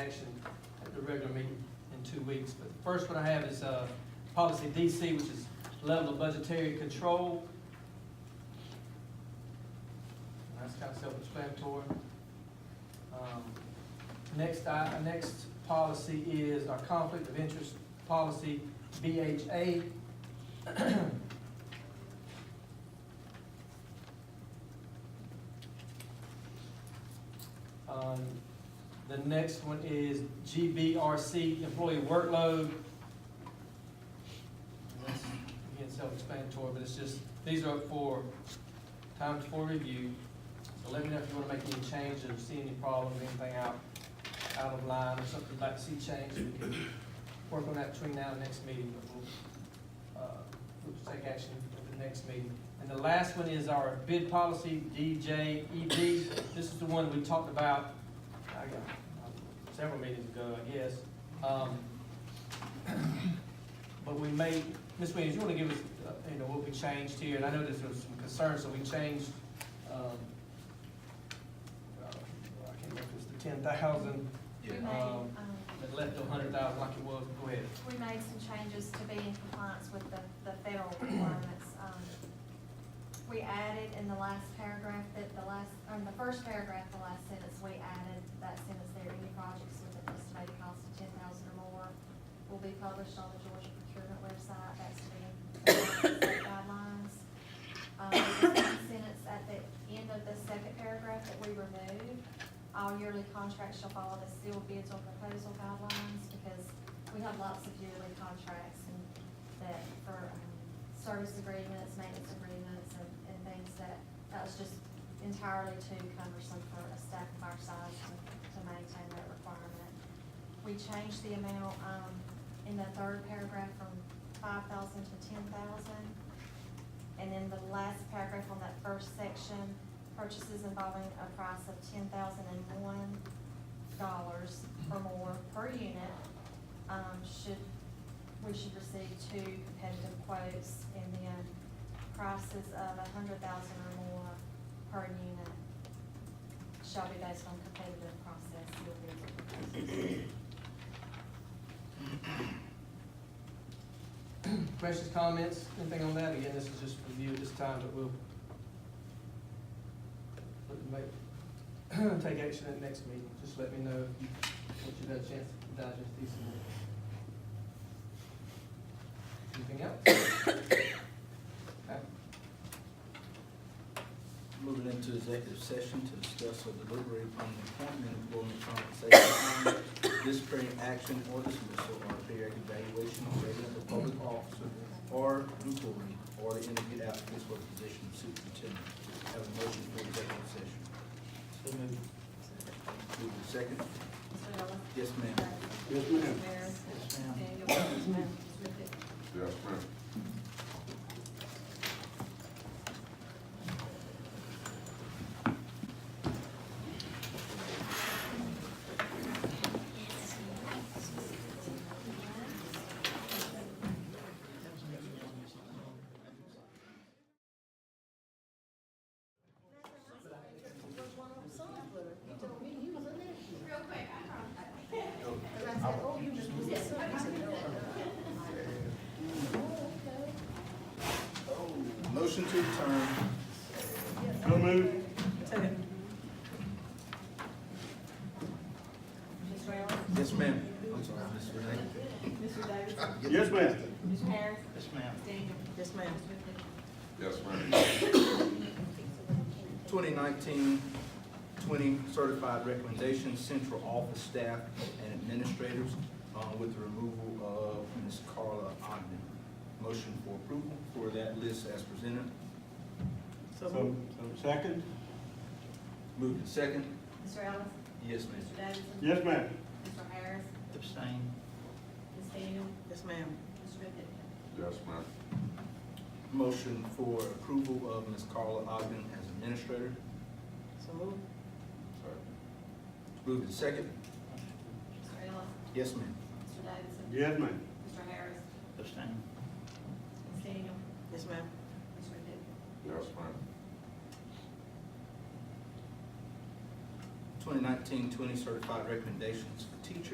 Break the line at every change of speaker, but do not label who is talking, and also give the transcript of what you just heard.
action at the regular meeting in two weeks. But the first one I have is uh, policy DC, which is level of budgetary control. And That's kind of self-explanatory. Um, Next, I- uh, next policy is our conflict of interest policy, BHA. Um, The next one is GBRC, employee workload. And that's, Again, self-explanatory, but it's just, these are for times for review. So let me know if you want to make any changes, or see any problems, anything out, out of line, or something you'd like to see changed. We can Work on that between now and next meeting, but we'll, uh, we'll take action at the next meeting. And the last one is our bid policy, DJEB. This is the one we talked about, I got, uh, several meetings ago, I guess. Um, But we made, Ms. Williams, you wanna give us, uh, you know, what we changed here, and I know there's some concern, so we changed, um, uh, I can't remember, if it's the ten thousand,
We made,
Yeah. Um,
um,
but left a hundred thousand like it was, go ahead.
we made some changes to be in compliance with the, the federal requirements. Um, We added in the last paragraph that the last, or in the first paragraph, the last sentence, we added that sentence there, any projects with an estimated cost of ten thousand or more will be published on the Georgia procurement website, that's to be in compliance with guidelines. Um, the second sentence at the end of the second paragraph that we removed, all yearly contracts shall follow the sealed bids or proposal guidelines, because we have lots of yearly contracts and that for um, service agreements, maintenance agreements, and, and things that, that was just entirely too cumbersome for a staff of our size to, to maintain that requirement. We changed the amount, um, in the third paragraph from five thousand to ten thousand. And then the last paragraph on that first section, purchases involving a price of ten thousand and one dollars or more per unit, um, should, we should receive two competitive quotes and then prices of a hundred thousand or more per unit shall be based on competitive process. You'll be able to
Questions, comments, anything on that? Again, this is just review this time, but we'll we'll make, take action at next meeting. Just let me know if you- once you've had a chance to digest these. Anything else? Okay.
Moving into executive session to discuss or deliberate upon the appointment, employment, compensation, disciplinary action, or dismissal, or periodic evaluation of regular or public officer, or employee, or the interview applicants for the position of superintendent. Have a motion for executive session.
So moved.
Move to second.
Mr. Ellis?
Yes, ma'am.
Yes,
Mr.
ma'am.
Barron?
Yes, ma'am.
Daniel? Yes, ma'am. Ms. Rickett?
Yes, ma'am.
Motion to return.
Mr. Ellis?
Yes, ma'am. I'm sorry, Ms. Renee.
Mr. Davidson?
Yes, ma'am.
Ms. Harris?
Yes, ma'am.
Daniel? Yes, ma'am. Ms. Rickett?
Yes, ma'am.
2019-20 certified recommendations, central office staff and administrators, uh, with the removal of Ms. Carla Ogden. Motion for approval for that list as presented.
So, so second?
Moved and second.
Mr. Ellis?
Yes, ma'am.
Mr. Davidson?
Yes, ma'am.
Mr. Harris?
Abstain.
Ms. Daniel?
Yes, ma'am.
Ms. Rickett?
Yes, ma'am.
Motion for approval of Ms. Carla Ogden as administrator.
So move.
Second.
Moved and second.
Mr. Ellis?
Yes, ma'am.
Mr. Davidson?
Yes, ma'am.
Mr. Harris?
Abstain.
Ms. Daniel?
Yes, ma'am.
Ms. Rickett?
Yes, ma'am.
2019-20 certified recommendations,